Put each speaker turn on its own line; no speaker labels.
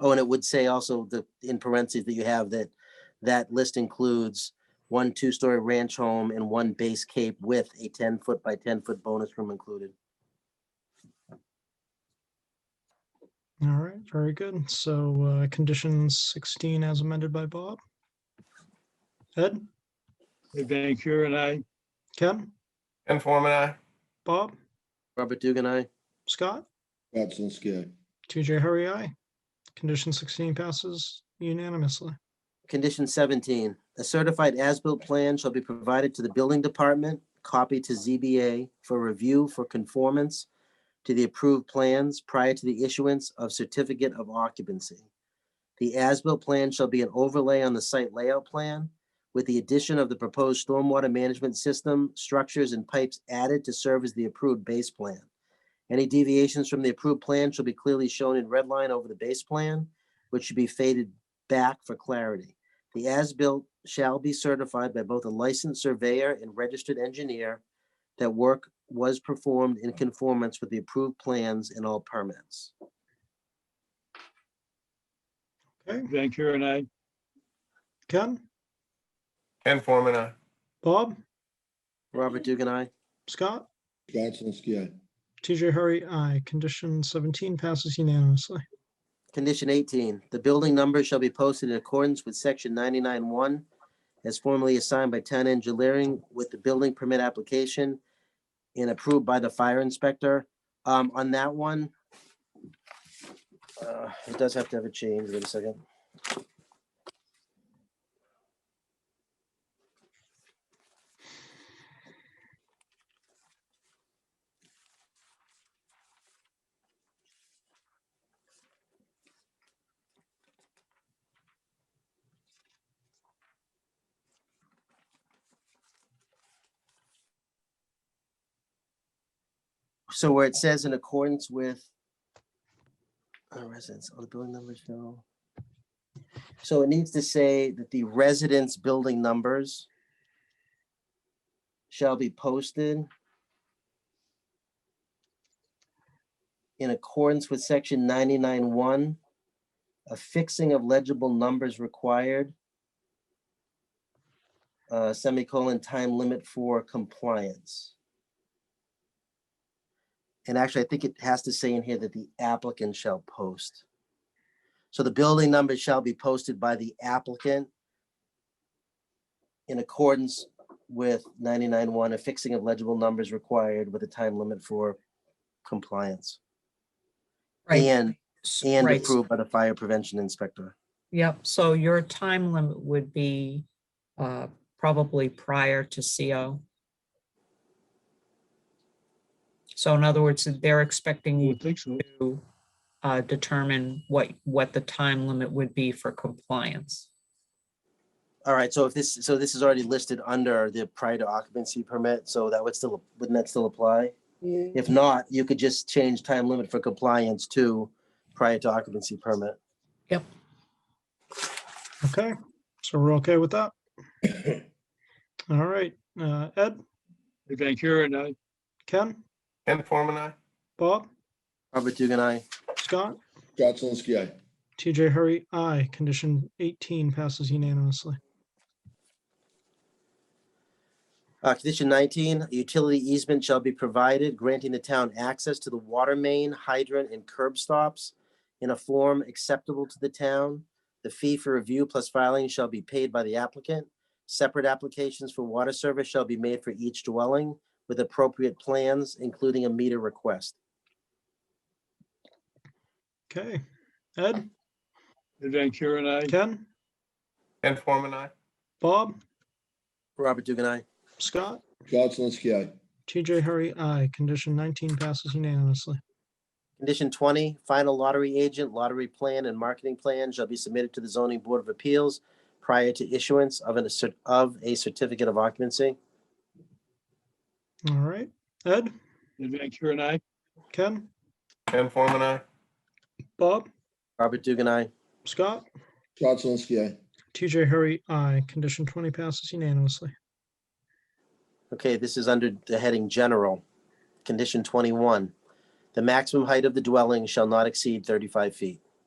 Oh, and it would say also the, in parentheses that you have that, that list includes one two-story ranch home and one base cape with a ten-foot by ten-foot bonus room included.
All right, very good. So uh, condition 16 as amended by Bob. Ed,
Ed Van Kuren, I.
Ken,
Ken Forman, aye.
Bob,
Robert Dugan, I.
Scott,
Scott Zelinski, aye.
TJ Hurry, I. Condition 16 passes unanimously.
Condition seventeen, a certified as-built plan shall be provided to the building department, copy to ZBA for review for conformance to the approved plans prior to the issuance of certificate of occupancy. The as-built plan shall be an overlay on the site layout plan with the addition of the proposed stormwater management system, structures and pipes added to serve as the approved base plan. Any deviations from the approved plan shall be clearly shown in red line over the base plan, which should be faded back for clarity. The as-built shall be certified by both a licensed surveyor and registered engineer that work was performed in conformance with the approved plans and all permits.
Okay,
Van Kuren, I.
Ken,
Ken Forman, aye.
Bob,
Robert Dugan, I.
Scott,
Scott Zelinski, aye.
TJ Hurry, I. Condition 17 passes unanimously.
Condition eighteen, the building number shall be posted in accordance with section ninety-nine one as formally assigned by town engineering with the building permit application and approved by the fire inspector. Um, on that one, uh, it does have to have a change. Wait a second. So where it says in accordance with uh, residence, all the building numbers show. So it needs to say that the residence building numbers shall be posted in accordance with section ninety-nine one, affixing of legible numbers required, uh, semicolon, time limit for compliance. And actually, I think it has to say in here that the applicant shall post. So the building number shall be posted by the applicant in accordance with 99-1, affixing of legible numbers required with a time limit for compliance
Right,
and,
s-
and
right.
approved by the fire prevention inspector.
Yep, so your time limit would be uh, probably prior to CO. So in other words, they're expecting
I
you
would think so.
Hmm.
to uh, determine what, what the time limit would be for compliance.
All right, so if this, so this is already listed under the prior to occupancy permit, so that would still, wouldn't that still apply? If not, you could just change time limit for compliance to prior to occupancy permit.
Okay, so we're okay with that? All right, uh, Ed,
Ed Van Kuren, I.
Ken,
Ken Forman, aye.
Bob,
Robert Dugan, I.
Scott,
Scott Zelinski, aye.
TJ Hurry, I. Condition 18 passes unanimously.
Uh, condition nineteen, a utility easement shall be provided granting the town access to the water main, hydrant, and curb stops in a form acceptable to the town. The fee for review plus filing shall be paid by the applicant. Separate applications for water service shall be made for each dwelling with appropriate plans, including a meter request.
Okay, Ed,
Ed Van Kuren, I.
Ken,
Ken Forman, aye.
Bob,
Robert Dugan, I.
Scott,
Scott Zelinski, aye.
TJ Hurry, I. Condition 19 passes unanimously.
Condition twenty, final lottery agent, lottery plan, and marketing plan shall be submitted to the zoning board of appeals prior to issuance of an, cer- of a certificate of occupancy.
All right, Ed,
Ed Van Kuren, I.
Ken,
Ken Forman, aye.
Bob,
Robert Dugan, I.
Scott,
Scott Zelinski, aye.
TJ Hurry, I. Condition 20 passes unanimously.
Okay, this is under the heading general. Condition twenty-one, the maximum height of the dwelling shall not exceed thirty-five feet.